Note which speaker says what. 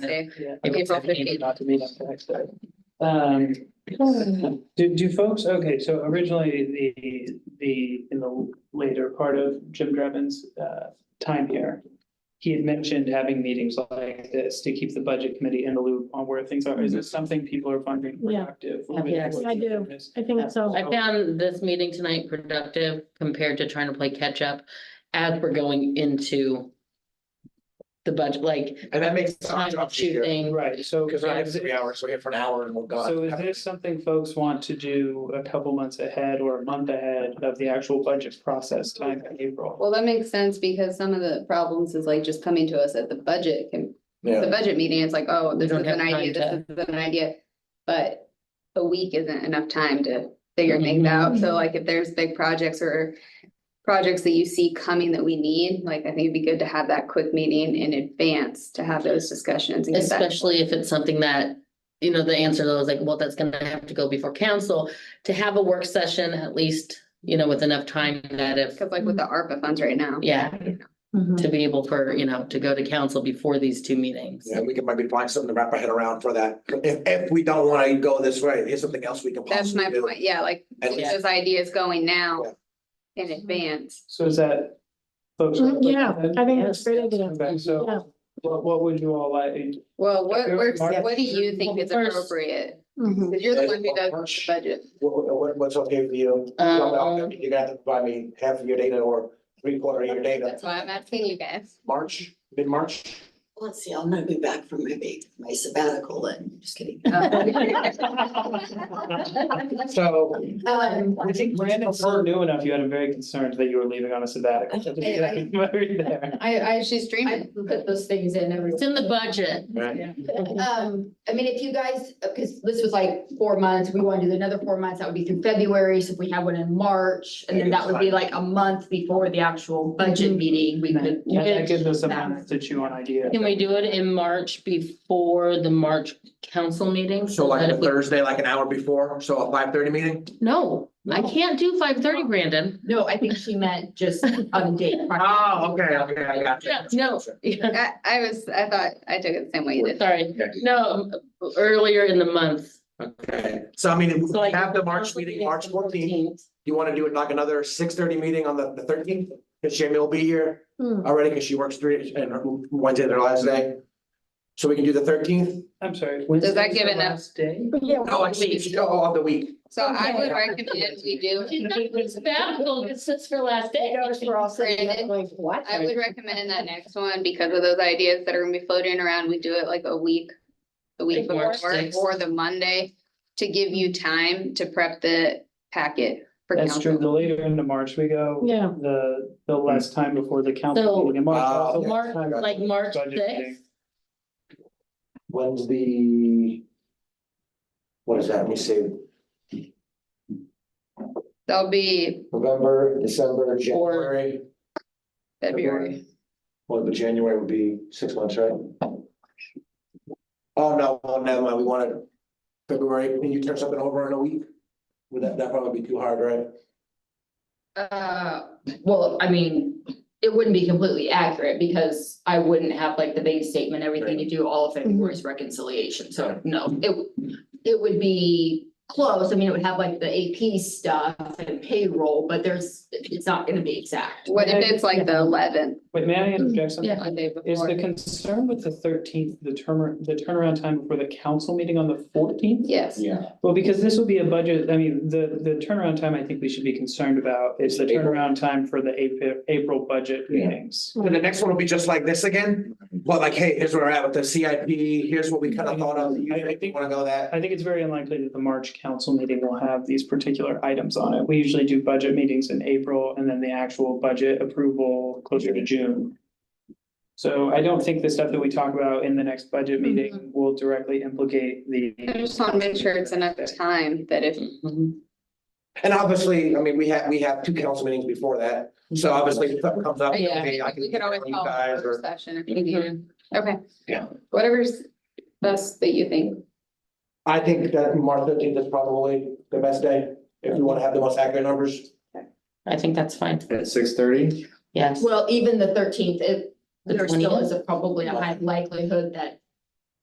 Speaker 1: day.
Speaker 2: Yeah.
Speaker 1: April 15th.
Speaker 2: Not to meet on the next day. Um, do, do folks, okay, so originally the, the, in the later part of Jim Drevin's, uh, time here. He had mentioned having meetings like this to keep the budget committee in the loop on where things are. Is this something people are finding
Speaker 3: Yeah.
Speaker 2: productive?
Speaker 1: Yes.
Speaker 3: I do. I think so.
Speaker 1: I found this meeting tonight productive compared to trying to play catch up as we're going into the budget, like
Speaker 4: And that makes. sense
Speaker 1: final
Speaker 4: up to here,
Speaker 1: shooting.
Speaker 2: Right, so.
Speaker 4: Because I have three hours, so we're here for an hour and we're gone.
Speaker 2: So is this something folks want to do a couple months ahead or a month ahead of the actual budget process time in April?
Speaker 5: Well, that makes sense because some of the problems is like just coming to us at the budget, can- the
Speaker 4: Yeah,
Speaker 5: budget meeting, it's like, oh, this is
Speaker 1: don't have
Speaker 5: an idea,
Speaker 1: time
Speaker 5: this is an idea. But a week isn't enough time to figure things
Speaker 1: Mhm.
Speaker 5: out. So like if there's big projects or projects that you see coming that we need, like I think it'd be good to have that quick meeting in advance to have those discussions. and get that-
Speaker 1: Especially if it's something that, you know, the answer to those like, well, that's gonna have to go before council. To have a work session at least, you know, with enough time that if,
Speaker 5: Cause like with the ARPA funds right now.
Speaker 1: Mm-hmm. yeah,
Speaker 3: Mhm.
Speaker 1: to be able for, you know, to go to council before these two meetings.
Speaker 4: yeah, we can maybe find something to wrap our head around for that. If, if we don't wanna go this way, here's something else we can
Speaker 5: That's my
Speaker 4: possibly do.
Speaker 5: point. Yeah, like
Speaker 4: At
Speaker 5: get those ideas going now in advance.
Speaker 2: So is that? folks are
Speaker 3: Mm, Yeah,
Speaker 2: looking
Speaker 3: I
Speaker 2: at-
Speaker 3: think that's a great idea.
Speaker 2: Okay,
Speaker 3: Yeah.
Speaker 2: So what, what would you all like?
Speaker 5: Well, what,
Speaker 2: Okay,
Speaker 5: works-
Speaker 2: Mark?
Speaker 5: what do you think is
Speaker 1: First-
Speaker 5: appropriate?
Speaker 3: Mhm.
Speaker 5: Cause you're the
Speaker 4: As
Speaker 5: one who does the
Speaker 4: March.
Speaker 5: budget.
Speaker 4: What, what, what's okay with you?
Speaker 1: Um,
Speaker 4: You gotta provide me half of your data or three quarter of your data.
Speaker 5: That's why I'm asking you guys.
Speaker 4: March, mid-March?
Speaker 6: Let's see, I'll not be back from my vac, my sabbatical and, just kidding.
Speaker 4: So.
Speaker 6: Um,
Speaker 2: I think Brandon, we're new enough, you had him very concerned that you were leaving on a sabbatical.
Speaker 6: I-
Speaker 2: Very there.
Speaker 5: I, I, she's
Speaker 6: I
Speaker 5: dreaming.
Speaker 6: put those things in every.
Speaker 1: It's in the budget.
Speaker 6: Um, I mean, if you guys, because this was like four months, we want to do another four months, that would be through February, so if we have one in March, and then that would be like a month before the actual budget meeting, we could.
Speaker 2: Yeah, that gives us some time to chew on ideas.
Speaker 1: Can we do it in March before the March council meeting?
Speaker 4: So like
Speaker 1: That
Speaker 4: a
Speaker 1: if we-
Speaker 4: Thursday, like an hour before, so a five thirty meeting?
Speaker 1: No, I can't do five thirty, Brandon.
Speaker 6: No, I think she meant just on a date.
Speaker 4: Oh, okay, okay, I got you.
Speaker 1: Yeah, no.
Speaker 5: I, I was, I thought, I took it the same way you did.
Speaker 1: Sorry, no, earlier in the month.
Speaker 4: Okay, so I mean,
Speaker 1: So like-
Speaker 4: have the March meeting, March fourteenth. You wanna do it like another six thirty meeting on the thirteenth? Cause Jamie will be here
Speaker 3: Hmm.
Speaker 4: already, cause she works three and Wednesday, their last day. So we can do the thirteenth?
Speaker 2: I'm sorry.
Speaker 5: Does that give enough-
Speaker 2: Day?
Speaker 3: Yeah,
Speaker 4: No, actually, she go all Oh, the week.
Speaker 5: So I would recommend we do,
Speaker 1: She's not doing sabbatical, it's just her last day.
Speaker 3: we're all sitting there going, what?
Speaker 5: I would recommend that next one because of those ideas that are gonna be floating around, we do it like a week. The week
Speaker 1: Like
Speaker 5: before
Speaker 1: March sixth.
Speaker 5: or the Monday to give you time to prep the packet for
Speaker 2: That's true. The
Speaker 5: council.
Speaker 2: later into March we go.
Speaker 3: Yeah.
Speaker 2: The, the less time before the council
Speaker 1: So,
Speaker 2: meeting in March.
Speaker 4: uh,
Speaker 2: also
Speaker 1: March,
Speaker 2: time-
Speaker 1: Like March
Speaker 2: Budget meeting.
Speaker 1: sixth,
Speaker 4: When's the? What is that? Let me see,
Speaker 5: That'll be
Speaker 4: November, December,
Speaker 1: January.
Speaker 5: February.
Speaker 4: Well, but January would be six months, right? Oh, no, oh, never mind, we wanted February, can you turn something over in a week? Would that, that probably be too hard, right?
Speaker 6: Uh, well, I mean, it wouldn't be completely accurate because I wouldn't have like the bank statement, everything to do all of February's reconciliation, so no, it. It would be close, I mean, it would have like the AP stuff and payroll, but there's, it's not gonna be exact.
Speaker 5: What if it's like the eleventh,
Speaker 2: Wait, may I interject something?
Speaker 5: the day before?
Speaker 2: Is the concern with the thirteenth, the turn, the turnaround time before the council meeting on the fourteenth?
Speaker 5: Yes,
Speaker 4: Yeah.
Speaker 2: Well, because this will be a budget, I mean, the, the turnaround time I think we should be concerned about is the turnaround time for the April, April budget
Speaker 4: Yeah.
Speaker 2: meetings.
Speaker 4: And the next one will be just like this again, but like, hey, here's where we're at with the CIP, here's what we kind of thought of, you
Speaker 2: I- I think-
Speaker 4: wanna go that?
Speaker 2: I think it's very unlikely that the March council meeting will have these particular items on it. We usually do budget meetings in April and then the actual budget approval closer to June. So I don't think the stuff that we talk about in the next budget meeting will directly implicate the.
Speaker 5: Mm-hmm. I just want to make sure it's enough time that if
Speaker 1: Mhm.
Speaker 4: And obviously, I mean, we have, we have two council meetings before that, so obviously if something comes up,
Speaker 1: Yeah,
Speaker 4: hey, I can.
Speaker 5: We could always
Speaker 4: you
Speaker 5: call a
Speaker 4: guys or- Mm-hmm.
Speaker 5: work session if we need it. Okay.
Speaker 4: Yeah.
Speaker 5: Whatever's best that you think.
Speaker 4: I think that March thirteenth is probably the best day, if you wanna have the most accurate numbers.
Speaker 1: I think that's fine,
Speaker 7: At six thirty?
Speaker 1: yes.
Speaker 6: Well, even the thirteenth, it,
Speaker 1: The
Speaker 6: there still
Speaker 1: 20th?
Speaker 6: is a probably a high likelihood that